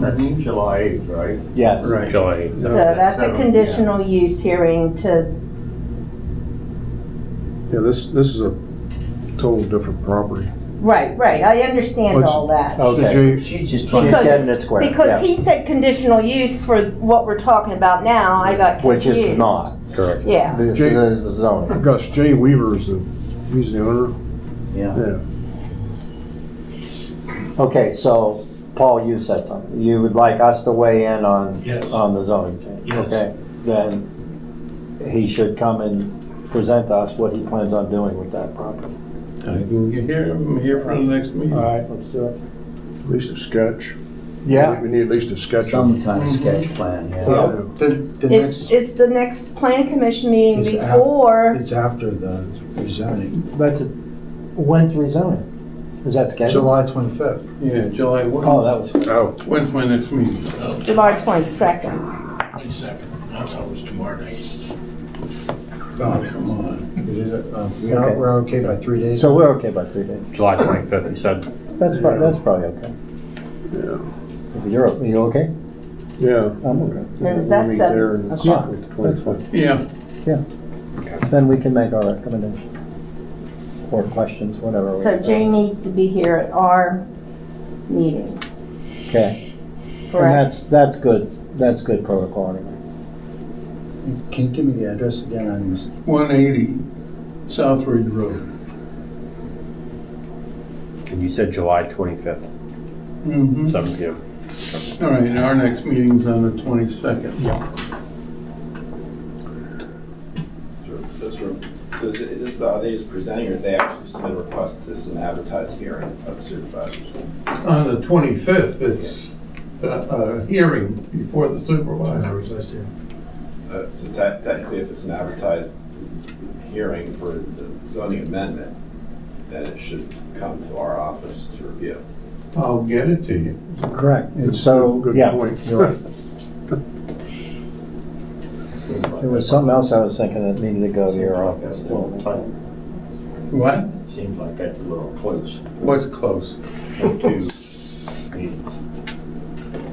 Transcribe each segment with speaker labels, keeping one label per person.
Speaker 1: That means July 8th, right?
Speaker 2: Yes.
Speaker 3: Right.
Speaker 4: July 8th.
Speaker 5: So
Speaker 3: Oh,
Speaker 5: that's a
Speaker 1: Seven, yeah.
Speaker 5: conditional use hearing to,
Speaker 3: Yeah, this, this is a total different property.
Speaker 5: right, right, I understand
Speaker 3: Let's-
Speaker 5: all that.
Speaker 2: Okay.
Speaker 3: Did you-
Speaker 6: She
Speaker 2: She's
Speaker 6: just
Speaker 5: Because-
Speaker 2: getting it squared,
Speaker 5: Because
Speaker 2: yeah.
Speaker 5: he said conditional use for what we're talking about now, I got
Speaker 2: Which
Speaker 5: confused.
Speaker 2: it's not.
Speaker 4: Correct.
Speaker 5: Yeah,
Speaker 2: This
Speaker 3: Jay-
Speaker 2: is a zoning.
Speaker 3: Gus, Jay Weaver is the, he's the owner?
Speaker 6: Yeah.
Speaker 3: Yeah.
Speaker 2: Okay, so Paul, you said something. You would like us to weigh in on,
Speaker 7: Yes.
Speaker 2: on the zoning change?
Speaker 7: Yes.
Speaker 2: Okay, then he should come and present to us what he plans on doing with that property.
Speaker 8: I can get here, I'm here for the next meeting.
Speaker 2: right, let's do it.
Speaker 3: At least a sketch.
Speaker 2: Yeah,
Speaker 3: We need at least a sketch.
Speaker 6: Some kind of sketch plan, yeah.
Speaker 2: Yeah.
Speaker 3: Yeah.
Speaker 8: The, the
Speaker 5: it's,
Speaker 8: next,
Speaker 5: it's the next planning commission meeting
Speaker 8: It's af-
Speaker 5: before,
Speaker 8: it's after the rezoning,
Speaker 2: that's, a- when's rezoning? Is that scheduled?
Speaker 8: July twenty-fifth.
Speaker 4: Yeah, July
Speaker 2: Oh, that was,
Speaker 4: Oh,
Speaker 8: When's my next meeting?
Speaker 5: July twenty-second.
Speaker 7: Twenty-second, I thought it was tomorrow night.
Speaker 8: Oh, come on. It is, uh, We are,
Speaker 2: Okay.
Speaker 8: we're okay by three days?
Speaker 2: so we're okay by three days.
Speaker 4: July 25th, he said.
Speaker 2: That's probably, that's probably okay.
Speaker 3: Yeah.
Speaker 2: If you're, are you okay?
Speaker 3: Yeah.
Speaker 2: I'm okay.
Speaker 5: And is that
Speaker 3: We'll meet
Speaker 5: seven
Speaker 3: there and it's
Speaker 2: o'clock?
Speaker 3: like the 25th.
Speaker 8: Yeah.
Speaker 2: Then we can make our recommendation. Or questions, whatever. we-
Speaker 5: So Jay needs to be here at our meeting,
Speaker 2: Okay, and
Speaker 5: correct?
Speaker 2: that's, that's good, that's good protocol anyway.
Speaker 8: Can you give me the address again? I missed.
Speaker 7: 180 South Ridge Road.
Speaker 4: And you said July 25th,
Speaker 7: Mm-hmm.
Speaker 4: 7 PM.
Speaker 7: All right, and our next meeting's on the 22nd.
Speaker 9: Those were- So is is this, are they just presenting or they actually submit a request to some advertised hearing of supervisors?
Speaker 7: On the 25th, it's uh, a hearing before the supervisors.
Speaker 9: Uh, So te- technically, if it's an advertised hearing for the zoning amendment, then it should come to our office to review.
Speaker 7: I'll get it to you.
Speaker 2: Correct, and
Speaker 3: It's a
Speaker 2: so,
Speaker 3: Good
Speaker 2: yeah,
Speaker 3: point.
Speaker 2: you're right. There was something else I was thinking that needed to go to your office. too.
Speaker 7: What?
Speaker 6: Seems like that's a little close.
Speaker 7: What's close?
Speaker 6: Two meetings.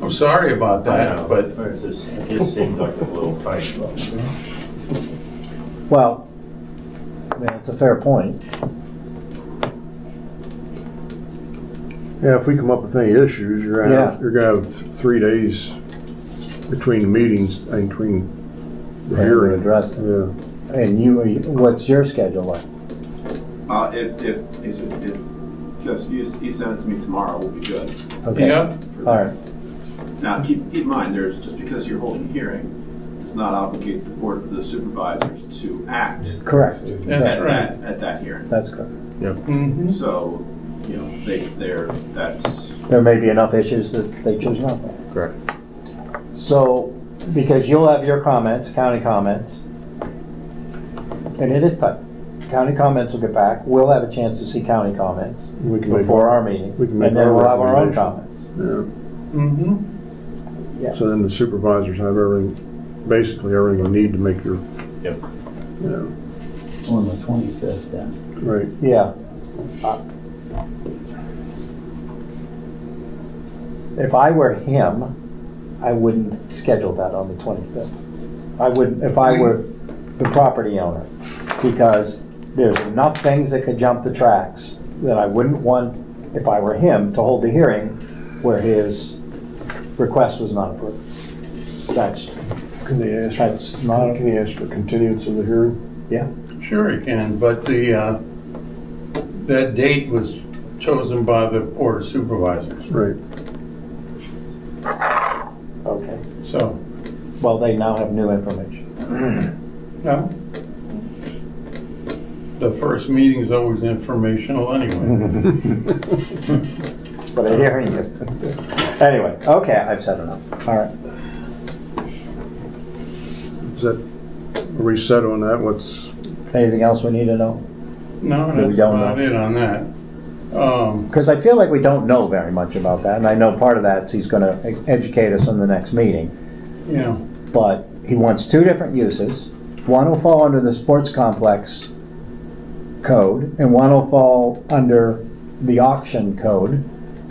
Speaker 7: I'm sorry about that, but
Speaker 6: It just- it just seems like a little tight.
Speaker 2: Well, I mean, it's a fair point.
Speaker 3: Yeah, if we come up with any issues, you're gonna, have- you're gonna have th- three days between meetings, uh, between the
Speaker 2: Yeah, we
Speaker 3: hearing.
Speaker 2: address it.
Speaker 3: Yeah.
Speaker 2: And you, what's your schedule like?
Speaker 9: Uh, If, if, if, if- just, you you send it to me tomorrow, we'll be good.
Speaker 2: Okay.
Speaker 7: Yep,
Speaker 2: All right,
Speaker 9: Now, keep, keep in mind, there's, just because you're holding a hearing, does not obligate the board of the supervisors to act
Speaker 2: correct,
Speaker 7: that's
Speaker 9: at
Speaker 7: right.
Speaker 9: that, at that hearing.
Speaker 2: that's correct.
Speaker 7: Mhm.
Speaker 9: So, you know, they, they're, that's,
Speaker 2: There may be enough issues that they choose not to.
Speaker 4: Correct.
Speaker 2: So, because you'll have your comments, county comments, and it is tight. County comments will get back, we'll have a chance to see county comments
Speaker 3: We can make-
Speaker 2: before our meeting,
Speaker 3: we can make
Speaker 2: and then
Speaker 3: our
Speaker 2: we'll have our own
Speaker 3: recommendation.
Speaker 2: comments.
Speaker 3: Yeah.
Speaker 7: Mhm.
Speaker 3: So then the supervisors have everything, basically everything you need to make your.
Speaker 4: Yep.
Speaker 3: Yeah,
Speaker 6: On the twenty-fifth then.
Speaker 3: right.
Speaker 2: Yeah. If I were him, I wouldn't schedule that on the 25th. I wouldn't, if I were the property owner, because there's enough things that could jump the tracks that I wouldn't want, if I were him, to hold the hearing where his request was not approved. That's,
Speaker 3: Can they ask,
Speaker 2: that's
Speaker 3: for-
Speaker 2: not,
Speaker 3: can they ask for continuance of the hearing?
Speaker 7: Sure it can, but the, uh, that date was chosen by the board of supervisors,
Speaker 3: Right.
Speaker 2: okay.
Speaker 7: so,
Speaker 2: Well, they now have new information.
Speaker 7: no. The first meeting is always informational anyway.
Speaker 3: Mm-hmm.
Speaker 2: But a hearing is. Anyway, okay, I've said enough. All right.
Speaker 3: Is that, are we set on that? What's,
Speaker 2: Anything else we need to know?
Speaker 7: No,
Speaker 2: We
Speaker 7: that's
Speaker 2: don't know.
Speaker 7: about it on that. Um,
Speaker 2: Because I feel like we don't know very much about that, and I know part of that's he's gonna e- educate us in the next meeting.
Speaker 7: you know,
Speaker 2: But he wants two different uses. One will fall under the sports complex code, and one will fall under the auction code.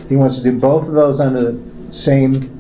Speaker 2: He wants to do both of those under the same